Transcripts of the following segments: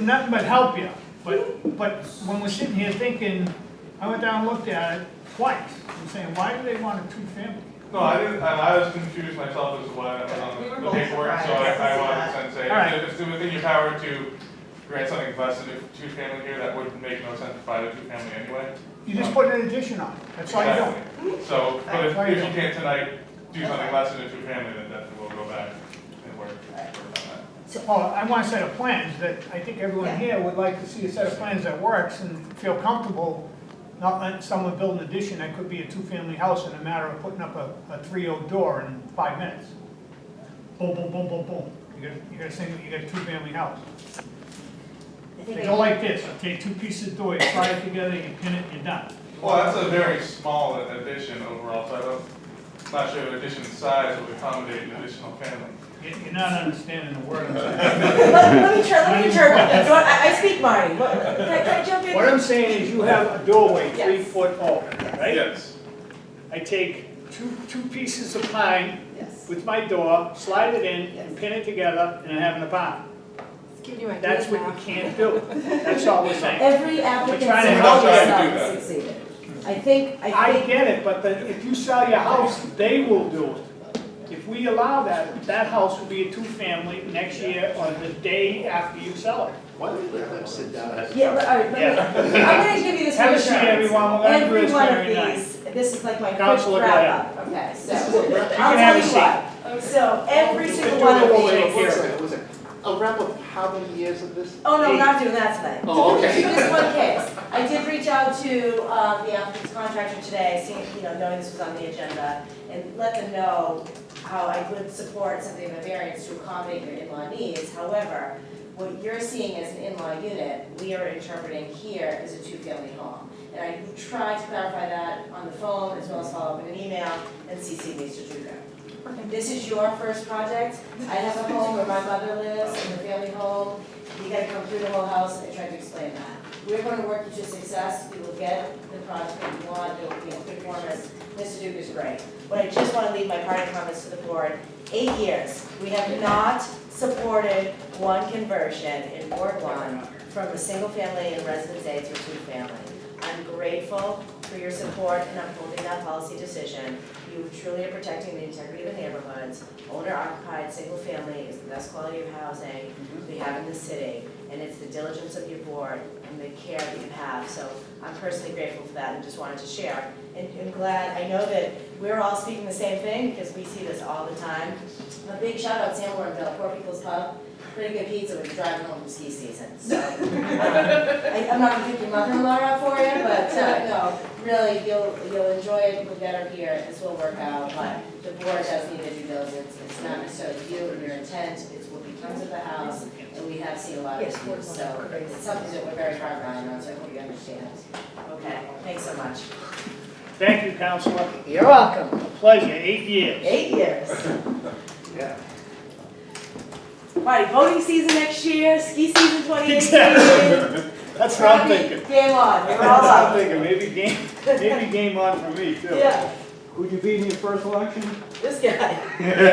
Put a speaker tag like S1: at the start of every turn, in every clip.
S1: nothing but help you, but, but when we're sitting here thinking, I went down and looked at it twice, and saying, why do they want a two-family?
S2: No, I didn't, I I was confused myself as to why that was
S3: We were
S2: on the
S3: both
S2: paperwork, so I,
S3: surprised.
S2: I wanted to send say,
S1: Alright.
S2: if it's within your power to grant something less than a two-family here, that would make no sense to buy a two-family anyway.
S1: You just put an addition on it, that's all you do.
S2: Exactly. So, but if,
S1: That's all you
S2: if you
S1: do.
S2: can't tonight do something less than a two-family, then definitely we'll go back and work, work on that.
S1: So, oh, I want a set of plans that I think everyone here would like to see a set of plans that works and feel comfortable not letting someone build an addition that could be a two-family house in a matter of putting up a, a three-o door in five minutes. Boom, boom, boom, boom, boom, you got, you got a single, you got a two-family house.
S4: I think
S1: They
S4: I-
S1: go like this, okay, two pieces of door, you tie it together, you pin it, you're done.
S2: Well, that's a very small addition overall, so I don't, not sure if addition size would accommodate an additional family.
S1: You- You're not understanding the word I'm saying.
S3: Let let me try, let me try, Go on, I, I speak mine, What- can I, can I jump in?
S1: What I'm saying is you have a doorway three
S3: Yes.
S1: foot open, right?
S2: Yes.
S1: I take two, two pieces of pine
S3: Yes,
S1: with my door, slide it in, and
S3: Yes.
S1: pin it together, and I have an apartment.
S4: It's giving you
S1: That's
S4: ideas
S1: what you
S4: now.
S1: can't do, that's all we're saying.
S4: Every applicant
S1: trying to
S4: somehow
S2: help you do
S4: has
S2: that.
S4: succeeded. I think, I
S1: I
S4: think,
S1: get it, but the- if you sell your house, they will do it. If we allow that, that house will be a two-family next year or the day after you sell it.
S5: Why don't we let them sit down?
S4: yeah, but, all right, let me, I'm gonna give you this
S1: Have a
S4: reassurance.
S1: seat, everyone. We're gonna do
S4: Every
S1: this
S4: one
S1: very
S4: of these, this is like my quick
S1: Counselor
S4: wrap up, okay, so, I'll
S1: can have
S4: tell
S1: a
S4: you what. So, every single one
S1: Do
S4: of
S1: it all the way
S4: these.
S1: here.
S5: What's that? What's that? A wrap up of how many years of this?
S4: Oh, no,
S5: Eight?
S4: we're not doing that tonight.
S5: Oh, okay.
S4: Just one case. I did reach out to, um, the applicant's contractor today, seeing, you know, knowing this was on the agenda, and let them know how I would support something of a variance to accommodate your in-law needs. However, what you're seeing as an in-law unit, we are interpreting here as a two-family home. And I tried to clarify that on the phone, as well as follow up in an email, and CC Mr. Duda. This is your first project. I have a home where my mother lives, in the family home, you gotta come through the whole house, and I tried to explain that. We're gonna work you to success, we will get the product that you want, it'll be in good form, as Mr. Duke is great. But I just wanna leave my parting comments to the board, eight years, we have not supported one conversion in Ward One from a single family in Residence A to a two-family. I'm grateful for your support in upholding that policy decision. You truly are protecting the integrity of the neighborhoods. Owner occupied, single family is the best quality of housing we have in the city. And it's the diligence of your board and the care that you have. So I'm personally grateful for that and just wanted to share. And I'm glad, I know that we're all speaking the same thing because we see this all the time. A big shout out Sam Warrenville, Poor People's Pub. Pretty good pizza when you're driving home from ski season, so. um, I, I'm not gonna pick your mother-in-law out for you, but, uh, no, really, you'll, you'll enjoy it, you'll get her here, this will work out, but the board does need to do diligence, it's not necessarily you and your intent, it's what becomes of the house, and we have seen a lot of issues, so it's something that we're very hard on, so I hope you understand. Okay, thanks so much.
S1: Thank you, Counselor,
S4: You're welcome.
S1: pleasure, eight years.
S4: Eight years.
S5: Yeah.
S4: Alright, voting season next year, ski season twenty
S1: Exactly. That's what I'm thinking.
S4: Game on, we're all
S1: That's what I'm
S4: up.
S1: thinking, maybe game, maybe game on for me too.
S4: Yeah,
S1: Would you be in your first election?
S4: this guy. Had a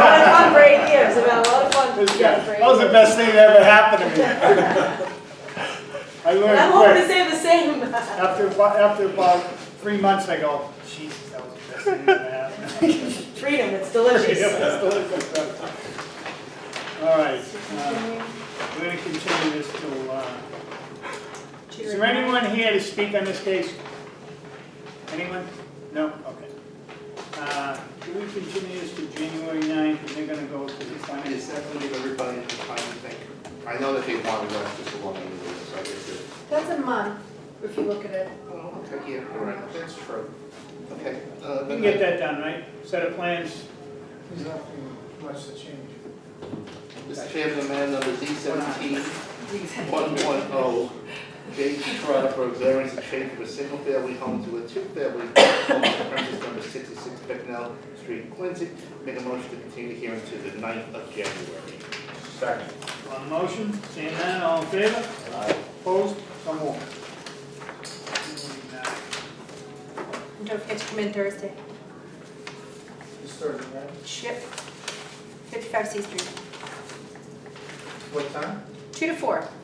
S4: lot of fun for eight years, We've had a lot of fun.
S1: This
S4: yeah,
S1: guy,
S4: for eight
S1: that was the
S4: years.
S1: best thing that ever happened to me. I
S4: And
S1: learned
S4: I'm hoping
S1: quick.
S4: to say the same.
S1: After, abo- after about three months, I go, Jesus, that was the best thing that ever happened.
S4: Freedom, it's delicious.
S1: That's delicious. All right, uh, we're gonna continue this till, uh, is there anyone here to speak on this case? Anyone? No, okay. Uh, do we continue this to January 9th, and they're gonna go to the
S5: I mean,
S1: finance?
S5: it's definitely everybody at the time to think. I know that they wanted us just along the way, so I guess it.
S6: That's a month, if you look at it.
S5: Well, Oh, okay, yeah, all right, that's true. Okay. uh,
S1: We can get that done, right? Set of plans,
S7: There's nothing much to change.
S5: Mr. Chairman, man number D seventeen, one one oh, J G Trotter for a variance to change from a single family home to a two family home on premises number sixty-six Pecknell Street, Quincy. Make a motion to continue the hearing to the 9th of January.
S2: Second.
S1: on motion, seeing none, all in favor? Opposed? So
S7: uh,
S1: moved.
S6: And don't forget to come in Thursday.
S7: It's Thursday, right?
S6: Yep. 55 C Street,
S7: What time?
S6: 2 to 4.